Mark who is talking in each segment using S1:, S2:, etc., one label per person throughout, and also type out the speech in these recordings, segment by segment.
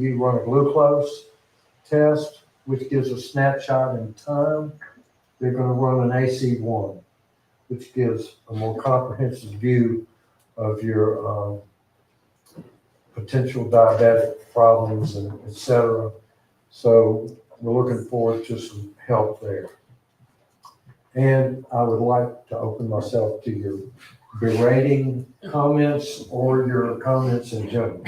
S1: you run a glucose test, which gives a snapshot in time. They're gonna run an AC one, which gives a more comprehensive view of your, um, potential diabetic problems and et cetera. So we're looking forward to some help there. And I would like to open myself to your berating comments or your comments in general.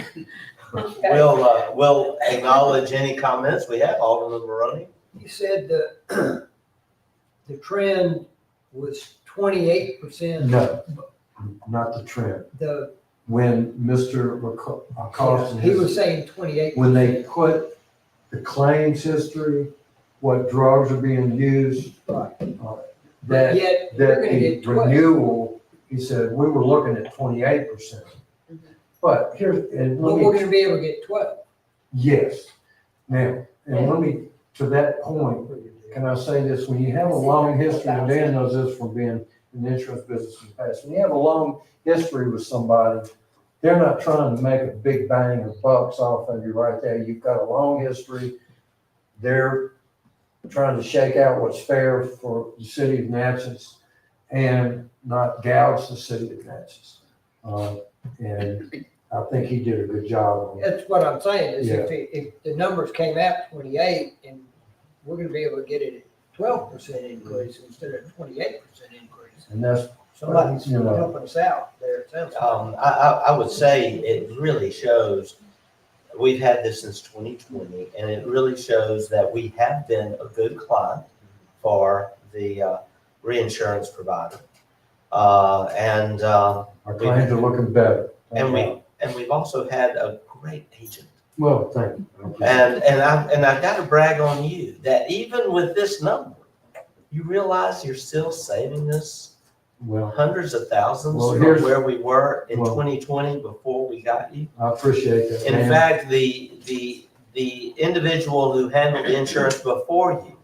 S2: Okay.
S3: We'll, uh, we'll acknowledge any comments we have, Alderman Maroney.
S4: You said the, the trend was twenty-eight percent,
S1: No, not the trend.
S4: the,
S1: When Mr. Laco- Acosta,
S4: he was saying twenty-eight.
S1: when they put the claims history, what drugs are being used, uh, that,
S4: Yet,
S1: that
S4: we're gonna
S1: the
S4: get twelve.
S1: renewal, he said, we were looking at twenty-eight percent.
S2: Mhm.
S1: But here, and
S4: Mm-hmm. But
S1: let me
S4: we're gonna be able to get twelve.
S1: Yes. Now, and let me, to that point, can I say this, when you have a long history, and Dan knows this from being in the insurance business in the past, when you have a long history with somebody, they're not trying to make a big bang of bucks off of you right there. You've got a long history. They're trying to shake out what's fair for the city of Natchez and not gouge the city of Natchez. Uh, And I think he did a good job on that.
S4: That's what I'm saying, is if, it- if the numbers came out twenty-eight, and we're gonna be able to get it at twelve percent increase instead of twenty-eight percent increase.
S1: And that's,
S4: Somebody's
S1: You know.
S4: helping us out there, it sounds like.
S3: Um, I, I, I would say it really shows, we've had this since twenty twenty, and it really shows that we have been a good client for the, uh, reinsurance provider. Uh, and, uh,
S1: our claims are looking better.
S3: and we, and we've also had a great agent.
S1: Well, thank you.
S3: And, and I, and I gotta brag on you, that even with this number, you realize you're still saving this
S1: Well,
S3: hundreds of thousands
S1: Well,
S3: from
S1: here's-
S3: where we were in
S1: Well-
S3: 2020 before we got you.
S1: I appreciate that.
S3: In
S1: man.
S3: fact, the, the, the individual who handled the insurance before you,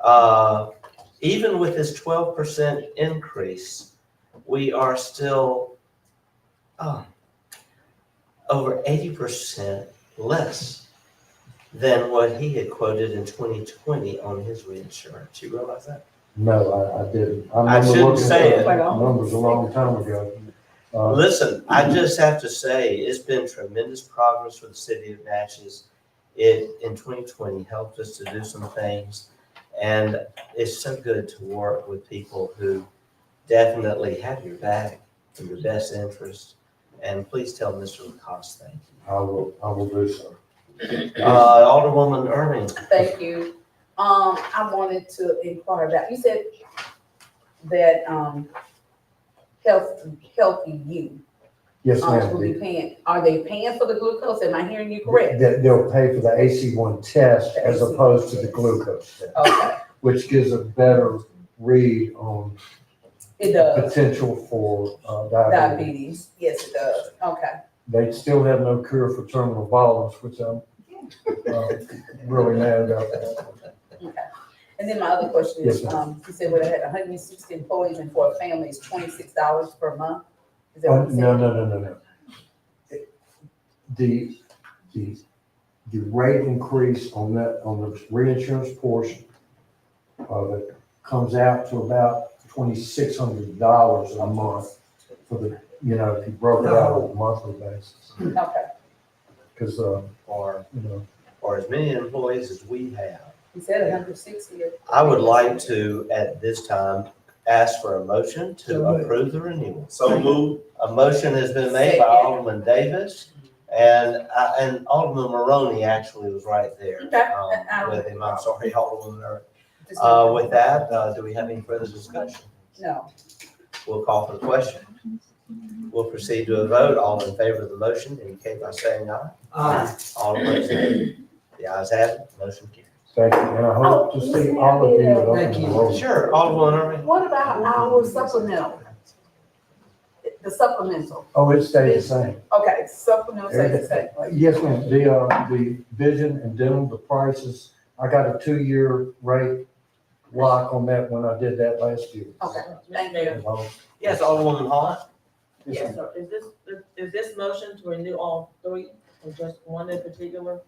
S3: uh, even with this 12% increase, we are still, oh, over 80% less than what he had quoted in 2020 on his reinsurance. You realize that?
S1: No, I, I didn't.
S3: I
S1: remember
S3: shouldn't
S1: looking at
S3: say
S1: the
S2: it.
S1: Numbers a long time ago. Uh,
S3: Listen, I just have to say, it's been tremendous progress for the city of Natchez. It, in twenty twenty, helped us to do some things. And it's so good to work with people who definitely have your back and your best interest. And please tell Mr. Lacoste thank you.
S1: I will, I will do so.
S3: Uh, Alderwoman Irving,
S2: Thank you. Um, I wanted to inquire about, you said that, um, health, healthy you,
S1: Yes,
S2: um, will
S1: ma'am.
S2: be paying, are they paying for the glucose? Am I hearing you correct?
S1: That they'll pay for the AC one test
S2: The
S1: as
S2: AC1
S1: opposed to the
S2: test.
S1: glucose test,
S2: Okay,
S1: which gives a better read on
S2: it does,
S1: potential for uh, diabetes.
S2: diabetes, yes, it does, okay.
S1: They still have no cure for terminal violence, which I'm uh, really mad about.
S2: And then my other question
S1: Yes,
S2: is,
S1: ma'am.
S2: um, you said what, I had hundred and sixty employees and for a family is twenty-six dollars per month? Is that
S1: Oh,
S2: what you
S1: no,
S2: said?
S1: no, no, no, no. It- The, the, the rate increase on that, on the reinsurance portion of it comes out to about twenty-six hundred dollars a month for the, you know, if you broke it out on a monthly basis.
S2: Okay,
S1: Because, uh,
S3: or,
S1: you know,
S3: or as many employees as we have,
S2: you said hundred and sixty.
S3: I would like to, at this time, ask for a motion to
S4: So moved.
S3: approve the renewal.
S5: So moved.
S3: A motion has been made by
S2: Second.
S3: Alderman Davis, and, uh, and Alderman Maroney actually was right there.
S2: Okay,
S3: um,
S2: I- I-
S3: With him, I'm sorry, Alderman, Mur- uh, with that, uh, do we have any further discussion?
S2: No,
S3: We'll call for the question. We'll proceed to a vote, all in favor of the motion, indicate by saying aye.
S4: Uh,
S3: All opposed, nay. The ayes have it, motion carries.
S1: thank you, and I hope to see all of you at
S4: Thank
S1: Open
S4: you.
S1: Enrollment.
S3: Sure, Alderman Irving.
S2: what about our supplemental? The supplemental,
S1: Oh, it stayed the same.
S2: okay, supplemental, say the same.
S1: Uh, Yes, ma'am, the, uh, the vision and dental, the prices, I got a two-year rate lock on that when I did that last year. uh,
S2: Okay, thank you.
S1: Well,
S3: Yes, Alderman Hall.
S1: yes,
S6: Yes, so is this, is this motion to renew all three? Or just one in particular?